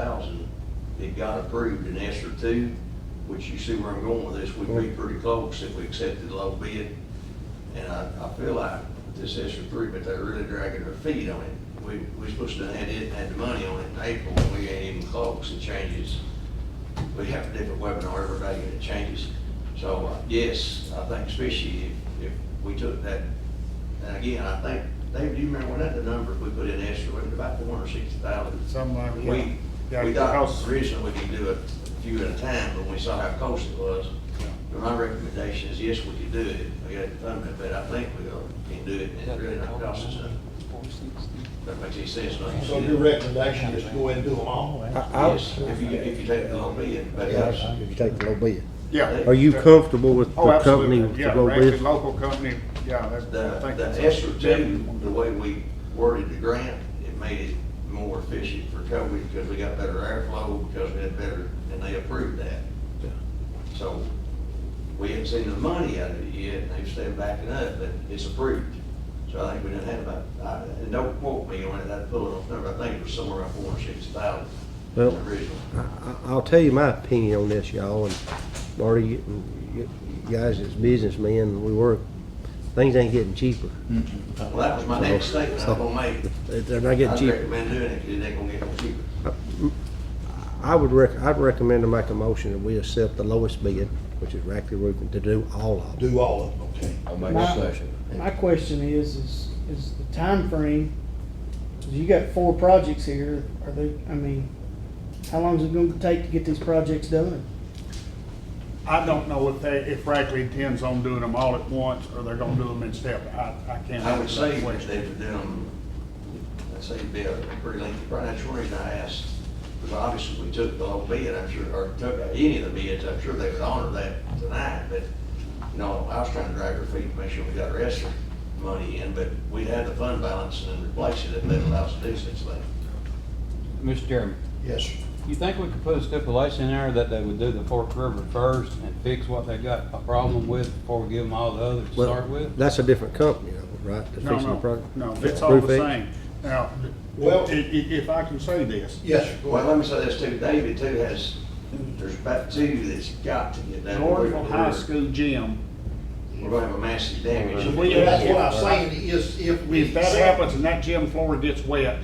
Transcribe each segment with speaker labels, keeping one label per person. Speaker 1: thousand, it got approved in Esther two, which you see where I'm going with this, we'd be pretty close if we accepted low bid. And I, I feel like with this Esther three, but they're really dragging their feet on it. We, we supposed to have had it, had the money on it in April, and we ain't even close, it changes. We have a different webinar every day and it changes. So, uh, yes, I think especially if, if we took that, and again, I think, David, do you remember when that, the number we put in Esther, was about four hundred sixty thousand?
Speaker 2: Something like that.
Speaker 1: We,
Speaker 2: uh, Yeah,
Speaker 1: we thought
Speaker 2: because-
Speaker 1: originally we could do it a few at a time, but we saw how close it was. But my recommendation is, yes, we could do it, we got it funded, but I think we gonna- can do it, and it really not cost us nothing. That makes any sense, don't you?
Speaker 3: So your recommendation is go ahead and do them all?
Speaker 4: I, I,
Speaker 1: Yes, if you, if you take the low bid, but yes,
Speaker 4: yes, if you take the low bid.
Speaker 2: Yeah.
Speaker 4: Are you comfortable with
Speaker 2: Oh,
Speaker 4: the
Speaker 2: absolutely.
Speaker 4: company, with the
Speaker 2: Yeah,
Speaker 4: low
Speaker 2: Rankin
Speaker 4: bid?
Speaker 2: local company, yeah, that's, I
Speaker 1: the,
Speaker 2: think that's.
Speaker 1: the ESER two, the way we worded the grant, it made it more efficient for COVID, because we got better airflow, because we had better, and they approved that. So we hadn't seen the money out of it yet, and they've said backing up, but it's approved. So I think we didn't have about, I- and don't quote me on it, I'd pull it off number, I think it was somewhere around four hundred sixty thousand
Speaker 4: Well-
Speaker 1: original.
Speaker 4: I, I- I'll tell you my opinion on this, y'all, and Marty, you- you you guys as businessmen, we work, things ain't getting cheaper.
Speaker 1: Well, that was my next statement I'm gonna make.
Speaker 4: They're not getting
Speaker 1: I'd
Speaker 4: cheaper.
Speaker 1: recommend doing it, 'cause it ain't gonna get no cheaper.
Speaker 4: I would rec, I'd recommend to make a motion that we accept the lowest bid, which is Rackley Roofing, to do all of them.
Speaker 3: Do all of them, okay.
Speaker 5: I'll make
Speaker 6: My-
Speaker 5: a session.
Speaker 6: My question is, is, is the timeframe, 'cause you got four projects here, are they, I mean, how long is it gonna take to get these projects done?
Speaker 2: I don't know if they, if Rackley intends on doing them all at once, or they're gonna do them in step. I, I can't.
Speaker 1: I would say
Speaker 2: answer that
Speaker 1: if they
Speaker 2: question.
Speaker 1: would do them, I'd say it'd be a pretty lengthy, probably that's one reason I asked, because obviously we took the whole bid, I'm sure, or took any of the bids, I'm sure they would honor that tonight, but, you know, I was trying to drag our feet, to make sure we got our extra money in, but we had the fund balance and then replace it if that allows us to do such thing.
Speaker 7: Mr. Chairman,
Speaker 3: Yes, sir.
Speaker 7: you think we could put a stipulation in there that they would do the Fork River first and fix what they got a problem with before we give them all the others to
Speaker 4: Well,
Speaker 7: start with?
Speaker 4: That's a different company, though, right? that's
Speaker 2: No,
Speaker 4: fixing the
Speaker 2: no,
Speaker 4: project?
Speaker 2: no, it's all the
Speaker 4: Roof X?
Speaker 2: same. Now,
Speaker 3: Well-
Speaker 2: well, i- i- if I can say this,
Speaker 3: Yes, sir. Go
Speaker 1: Well,
Speaker 3: ahead.
Speaker 1: let me say this too, David too has, there's about two that's got to get done.
Speaker 2: Lordville High
Speaker 1: We're-
Speaker 2: School gym,
Speaker 1: We're gonna have a massive damage.
Speaker 2: If we-
Speaker 3: That's what I'm saying is if we.
Speaker 2: if that
Speaker 3: accept-
Speaker 2: happens and that gym floor gets wet,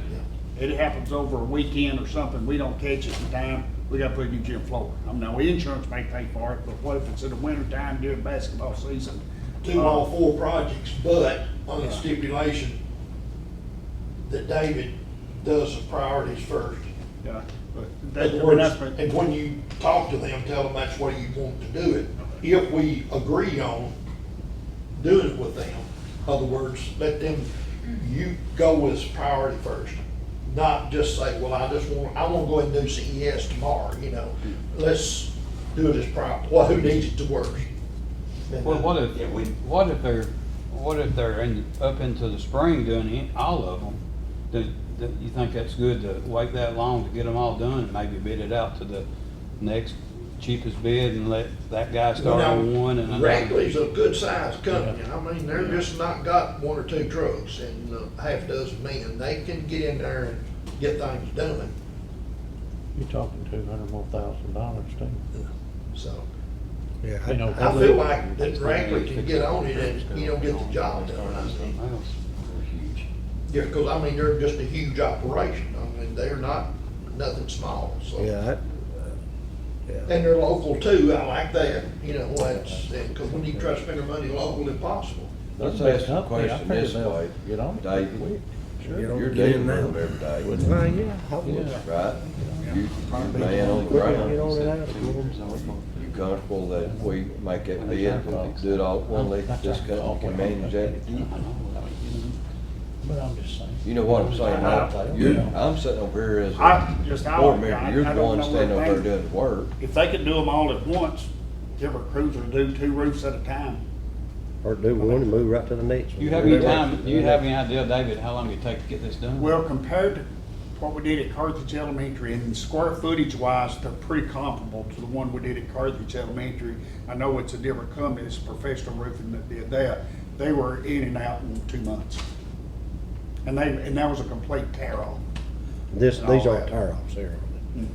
Speaker 2: it happens over a weekend or something, we don't catch it in time, we gotta put a new gym floor. I know insurance may pay for it, but what if it's in the winter time during basketball season? Oh,
Speaker 3: Do all four projects, but on the stipulation that David does the priorities first.
Speaker 2: Yeah, but that,
Speaker 3: In other
Speaker 2: I mean,
Speaker 3: words,
Speaker 2: that's, been-
Speaker 3: and when you talk to them, tell them that's where you want to do it. If we agree on doing it with them, other words, let them, you go with priority first. Not just say, well, I just want, I want to go ahead and do CES tomorrow, you know, let's do it as prior, well, who needs it the worst? And
Speaker 7: Well, what if,
Speaker 1: Yeah, we-
Speaker 7: what if they're, what if they're in, up into the spring doing it, all of them? Do, do you think that's good to wait that long to get them all done and maybe bid it out to the next cheapest bid and let that guy
Speaker 3: Well,
Speaker 7: start
Speaker 3: now,
Speaker 7: on one and another?
Speaker 3: Rackley's a good sized company, I mean, they're just not got one or two trucks and a half dozen men, they can get in there and get things done,
Speaker 8: You're talking two hundred more thousand dollars, too.
Speaker 3: so.
Speaker 4: Yeah,
Speaker 8: You know,
Speaker 4: I-
Speaker 3: I feel like that Rackley can get on it and, you know, get the job done, I think.
Speaker 7: Well,
Speaker 3: Yeah, cause I mean, they're just a huge operation, I mean, they're not, nothing small, so.
Speaker 4: I- yeah, I- yeah.
Speaker 3: And they're local too, I like that, you know, that's, and, cause when you try to spend your money local, impossible.
Speaker 5: Let's
Speaker 8: That's
Speaker 5: ask
Speaker 8: a
Speaker 5: the
Speaker 8: company, I
Speaker 5: question this
Speaker 8: figured they'll
Speaker 5: way.
Speaker 8: get on it
Speaker 5: David,
Speaker 8: quick. Sure.
Speaker 4: Get on-
Speaker 5: you're
Speaker 4: get in
Speaker 5: dealing with them
Speaker 4: now.
Speaker 5: every day,
Speaker 4: Well, yeah, I would.
Speaker 5: right? You, you man on the
Speaker 4: Get on
Speaker 5: ground.
Speaker 4: it out.
Speaker 5: You comfortable that we make that bid, and do it all at one, let this company can manage that?
Speaker 8: But I'm just saying.
Speaker 5: You know what I'm saying? I- You're, I'm sitting over here as
Speaker 2: I,
Speaker 5: a
Speaker 2: just, I,
Speaker 5: board
Speaker 2: I
Speaker 5: member,
Speaker 2: I
Speaker 5: you're the
Speaker 2: don't
Speaker 5: one
Speaker 2: know
Speaker 5: standing
Speaker 2: what
Speaker 5: over there
Speaker 2: things-
Speaker 5: doing the work.
Speaker 2: If they could do them all at once, give a cruiser do two roofs at a time.
Speaker 4: Or do one and move right to the next one.
Speaker 7: You have any time, do you have any idea, David, how long it take to get this done?
Speaker 2: Well, compared to what we did at Carthage Elementary and square footage wise, they're pretty comparable to the one we did at Carthage Elementary. I know it's a different company, it's professional roofing that did that. They were in and out in two months. And they, and that was a complete tear off.
Speaker 4: This,
Speaker 2: and all
Speaker 4: these aren't
Speaker 2: that.
Speaker 4: tear offs, they're,
Speaker 2: Mm.